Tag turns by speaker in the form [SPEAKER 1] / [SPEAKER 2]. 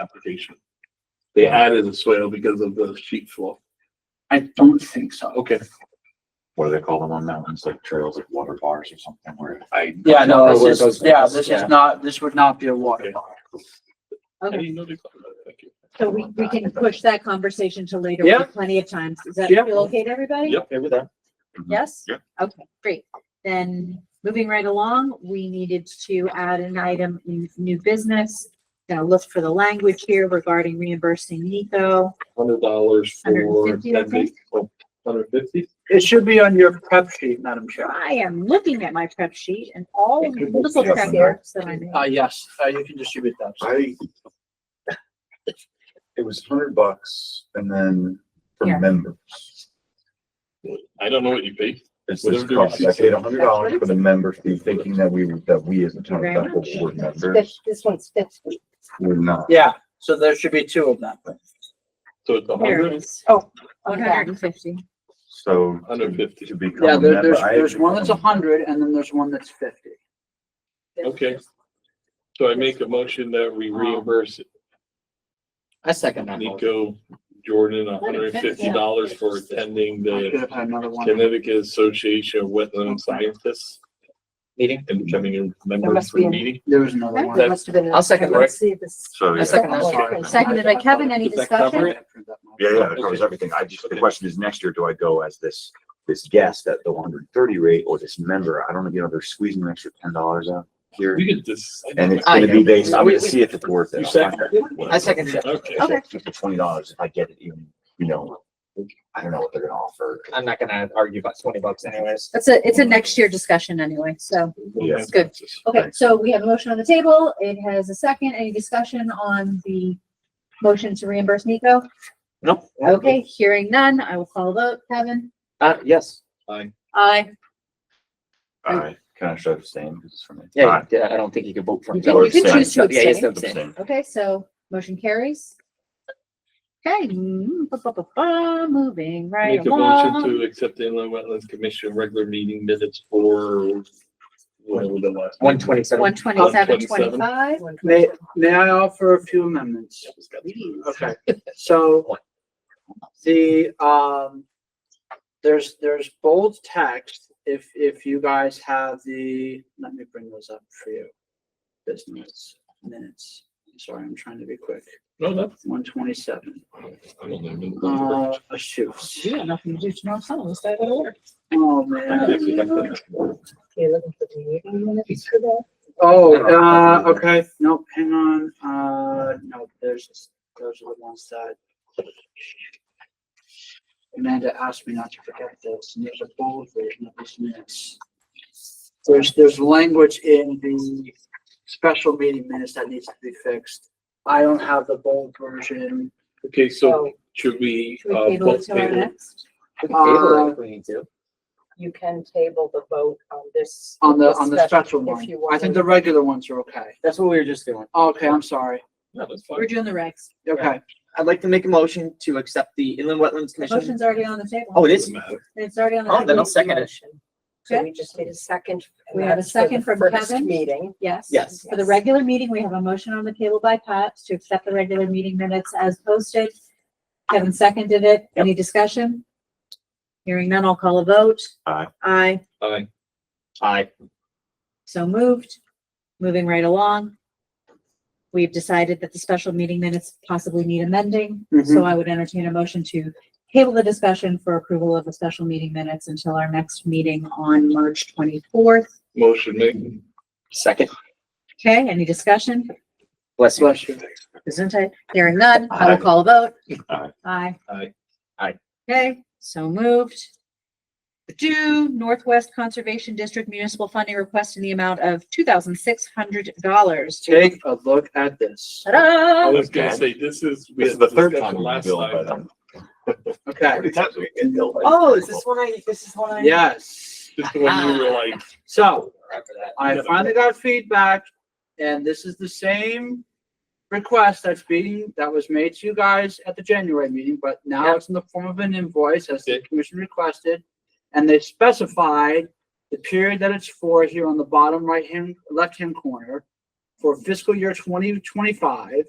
[SPEAKER 1] application. They added the soil because of the sheet flow.
[SPEAKER 2] I don't think so.
[SPEAKER 1] Okay,
[SPEAKER 3] What do they call them on mountains, like trails, like water bars or something where?
[SPEAKER 1] I.
[SPEAKER 2] Yeah, no,
[SPEAKER 3] Where it
[SPEAKER 2] this
[SPEAKER 3] goes-
[SPEAKER 2] is, yeah, this
[SPEAKER 3] yeah.
[SPEAKER 2] is not, this would not be a water
[SPEAKER 1] Okay.
[SPEAKER 2] park.
[SPEAKER 1] I
[SPEAKER 4] Okay,
[SPEAKER 1] didn't know they called it. Thank you.
[SPEAKER 4] so we, we can push that conversation to later.
[SPEAKER 2] Yeah.
[SPEAKER 4] with Plenty of times. Does that
[SPEAKER 2] Yeah.
[SPEAKER 4] feel okay to everybody?
[SPEAKER 1] Yep.
[SPEAKER 3] Over there.
[SPEAKER 4] Yes?
[SPEAKER 3] Yeah.
[SPEAKER 4] Okay, great. Then moving right along, we needed to add an item in new business. Gonna look for the language here regarding reimbursing Nico.
[SPEAKER 1] Hundred dollars for
[SPEAKER 4] 150, I
[SPEAKER 1] ten days. Oh, Hundred fifty?
[SPEAKER 2] It should be on your prep sheet, Madam Chair.
[SPEAKER 4] I am looking at my prep sheet and all of the little prep works that I made.
[SPEAKER 2] Uh, yes, uh, you can distribute that.
[SPEAKER 3] I. It was hundred bucks and then for
[SPEAKER 4] Yeah.
[SPEAKER 3] members.
[SPEAKER 1] I don't know what you paid.
[SPEAKER 3] It's
[SPEAKER 1] Whatever
[SPEAKER 3] this
[SPEAKER 1] the
[SPEAKER 3] cost. I
[SPEAKER 1] receipt
[SPEAKER 3] paid
[SPEAKER 1] said.
[SPEAKER 3] hundred dollars for the member fee, thinking that we, that we as the town of
[SPEAKER 4] Very
[SPEAKER 3] Bethel
[SPEAKER 4] much.
[SPEAKER 3] were
[SPEAKER 5] This,
[SPEAKER 3] members.
[SPEAKER 5] this one's fifty.
[SPEAKER 3] We're not.
[SPEAKER 2] Yeah, so there should be two of them.
[SPEAKER 1] So it's a
[SPEAKER 4] There it
[SPEAKER 1] hundred,
[SPEAKER 4] is. Oh, One
[SPEAKER 5] Okay.
[SPEAKER 4] hundred and fifty.
[SPEAKER 3] So. to-
[SPEAKER 1] hundred fifty.
[SPEAKER 3] To become
[SPEAKER 2] Yeah,
[SPEAKER 3] a
[SPEAKER 2] there,
[SPEAKER 3] member.
[SPEAKER 2] there's,
[SPEAKER 3] I
[SPEAKER 2] there's one that's a
[SPEAKER 3] become-
[SPEAKER 2] hundred and then there's one that's fifty.
[SPEAKER 1] Okay. So I make a motion that we reimburse
[SPEAKER 6] I second that. motion.
[SPEAKER 1] Nico Jordan hundred and fifty dollars for attending
[SPEAKER 2] I should
[SPEAKER 1] the
[SPEAKER 2] have had another one.
[SPEAKER 1] Connecticut Association of Wetland Scientists
[SPEAKER 6] Meeting.
[SPEAKER 1] and becoming a member
[SPEAKER 5] There must
[SPEAKER 1] for the
[SPEAKER 5] be a-
[SPEAKER 1] meeting.
[SPEAKER 2] There was another
[SPEAKER 1] That-
[SPEAKER 2] one.
[SPEAKER 5] There must have been.
[SPEAKER 6] I'll second
[SPEAKER 5] Let's see if this.
[SPEAKER 3] So, yeah.
[SPEAKER 6] I second that.
[SPEAKER 2] Sorry.
[SPEAKER 4] Seconded by Kevin. Any
[SPEAKER 1] Does that cover
[SPEAKER 4] discussion?
[SPEAKER 1] it?
[SPEAKER 3] Yeah, yeah, that covers
[SPEAKER 1] Okay.
[SPEAKER 3] everything. I just, the
[SPEAKER 1] Okay.
[SPEAKER 3] question is next year, do I go as this, this guest at the one hundred and thirty rate or this member? I don't know, you know, they're squeezing an extra ten dollars out here.
[SPEAKER 1] We could just.
[SPEAKER 3] And it's
[SPEAKER 6] I
[SPEAKER 3] gonna be
[SPEAKER 6] know.
[SPEAKER 3] based, I'm
[SPEAKER 6] We-
[SPEAKER 3] gonna
[SPEAKER 6] we-
[SPEAKER 3] see at the board that.
[SPEAKER 1] You second it?
[SPEAKER 6] I second it.
[SPEAKER 1] Okay.
[SPEAKER 4] Oh,
[SPEAKER 3] It's like Just the twenty dollars if I get it even, you know, I don't know what they're gonna offer.
[SPEAKER 6] I'm not gonna argue about twenty bucks anyways.
[SPEAKER 4] That's a, it's a next year discussion anyway, so.
[SPEAKER 3] Yeah.
[SPEAKER 4] It's good. Okay, so we have a motion on the table. It has a second. Any discussion on the motion to reimburse Nico?
[SPEAKER 6] Nope.
[SPEAKER 4] Okay, hearing none, I will call the vote. Kevin?
[SPEAKER 6] Uh, yes.
[SPEAKER 1] Fine.
[SPEAKER 4] Aye.
[SPEAKER 3] All right, can I show the same? Because it's for me. All
[SPEAKER 6] Yeah,
[SPEAKER 3] right,
[SPEAKER 6] yeah, I don't think you could vote for.
[SPEAKER 4] You
[SPEAKER 6] him. uh,
[SPEAKER 4] can, you can choose to
[SPEAKER 6] Yeah, yes,
[SPEAKER 4] abstain.
[SPEAKER 6] that's abstain.
[SPEAKER 4] Okay, so motion carries. Okay, mm, ba, ba, ba, ba, moving right
[SPEAKER 1] Make a motion
[SPEAKER 4] along.
[SPEAKER 1] to accept the inland wetlands commission regular meeting minutes for. whatever the last-
[SPEAKER 6] One twenty-seven.
[SPEAKER 4] One twenty-seven,
[SPEAKER 1] 127.
[SPEAKER 4] twenty-five.
[SPEAKER 2] May, may I offer a few amendments? Okay, so the, um, there's, there's bold text. If, if you guys have the, let me bring those up for you. Business minutes. Sorry, I'm trying to be quick.
[SPEAKER 1] No, that's.
[SPEAKER 2] One twenty-seven.
[SPEAKER 1] I don't know.
[SPEAKER 2] Uh, shoot.
[SPEAKER 4] You got nothing to do tomorrow, so we'll stay out of order.
[SPEAKER 2] Oh, man.
[SPEAKER 1] Uh,
[SPEAKER 5] You're looking for the meeting minutes for that?
[SPEAKER 2] Oh, uh, okay, nope, hang on, uh, no, there's, those are the ones that. Amanda asked me not to forget this, and there's a bold version of this minutes. There's, there's language in the special meeting minutes that needs to be fixed. I don't have the bold version.
[SPEAKER 1] Okay, so should we,
[SPEAKER 4] Oh. Should
[SPEAKER 1] uh,
[SPEAKER 4] we table it
[SPEAKER 1] both
[SPEAKER 4] till our
[SPEAKER 1] table?
[SPEAKER 4] next?
[SPEAKER 6] We can
[SPEAKER 2] uh,
[SPEAKER 6] table it if we need to.
[SPEAKER 5] You can table the vote on this.
[SPEAKER 2] On the, on the special
[SPEAKER 5] if
[SPEAKER 2] one,
[SPEAKER 5] you
[SPEAKER 2] I
[SPEAKER 5] want
[SPEAKER 2] think
[SPEAKER 5] to-
[SPEAKER 2] the regular ones are okay.
[SPEAKER 6] That's what we were just doing.
[SPEAKER 2] Okay, I'm sorry,
[SPEAKER 1] No, that's
[SPEAKER 4] We're
[SPEAKER 1] fine.
[SPEAKER 4] doing the regs.
[SPEAKER 2] okay,
[SPEAKER 6] I'd like to make a motion to accept the Inland Wetlands
[SPEAKER 4] The
[SPEAKER 6] Commission.
[SPEAKER 4] motion's already on the table.
[SPEAKER 6] Oh, it is?
[SPEAKER 1] Doesn't matter.
[SPEAKER 4] It's already on the.
[SPEAKER 6] Oh, then I'll
[SPEAKER 4] table.
[SPEAKER 6] second it.
[SPEAKER 5] So we just need a second. and
[SPEAKER 4] We have a
[SPEAKER 5] that's for the
[SPEAKER 4] second from
[SPEAKER 5] first
[SPEAKER 4] Kevin.
[SPEAKER 5] Meeting.
[SPEAKER 4] Yes.
[SPEAKER 6] Yes.
[SPEAKER 4] For the regular meeting, we have a motion on the table by Pat to accept the regular meeting minutes as posted. Kevin seconded it. Any discussion? Hearing none, I'll call a vote.
[SPEAKER 3] Aye.
[SPEAKER 4] Aye,
[SPEAKER 1] Aye.
[SPEAKER 6] Aye.
[SPEAKER 4] so moved. Moving right along. We've decided that the special meeting minutes possibly need amending, so I would entertain a motion to table the discussion for approval of the special meeting minutes until our next meeting on March twenty-fourth.
[SPEAKER 1] Motion made.
[SPEAKER 6] Second.
[SPEAKER 4] Okay, any discussion?
[SPEAKER 6] Bless you.
[SPEAKER 2] bless you.
[SPEAKER 4] Isn't it? Hearing none, I will call a vote.
[SPEAKER 3] Aye.
[SPEAKER 4] Aye.
[SPEAKER 1] Aye.
[SPEAKER 6] Aye.
[SPEAKER 4] Okay, so moved. Do Northwest Conservation District Municipal Funding Request in the amount of two thousand six hundred dollars.
[SPEAKER 2] Take a look at this,
[SPEAKER 1] I
[SPEAKER 4] Ta-da!
[SPEAKER 1] was gonna say, this is. we
[SPEAKER 3] This is
[SPEAKER 1] had
[SPEAKER 3] the third
[SPEAKER 1] discussion
[SPEAKER 3] time we've
[SPEAKER 1] Last
[SPEAKER 3] been billed by
[SPEAKER 1] time.
[SPEAKER 3] them.
[SPEAKER 2] okay,
[SPEAKER 3] Every time we get billed by them.
[SPEAKER 6] Oh, is this one I, this is one I?
[SPEAKER 2] yes.
[SPEAKER 1] Just the one you were like,
[SPEAKER 2] So,
[SPEAKER 6] Remember that.
[SPEAKER 2] I finally got feedback, and this is the same request that's being, that was made to you guys at the January meeting, but now
[SPEAKER 6] Yeah.
[SPEAKER 2] it's in the form of an invoice as the
[SPEAKER 1] Okay.
[SPEAKER 2] commission requested. And they specified the period that it's for here on the bottom right hand, left hand corner for fiscal year twenty twenty-five.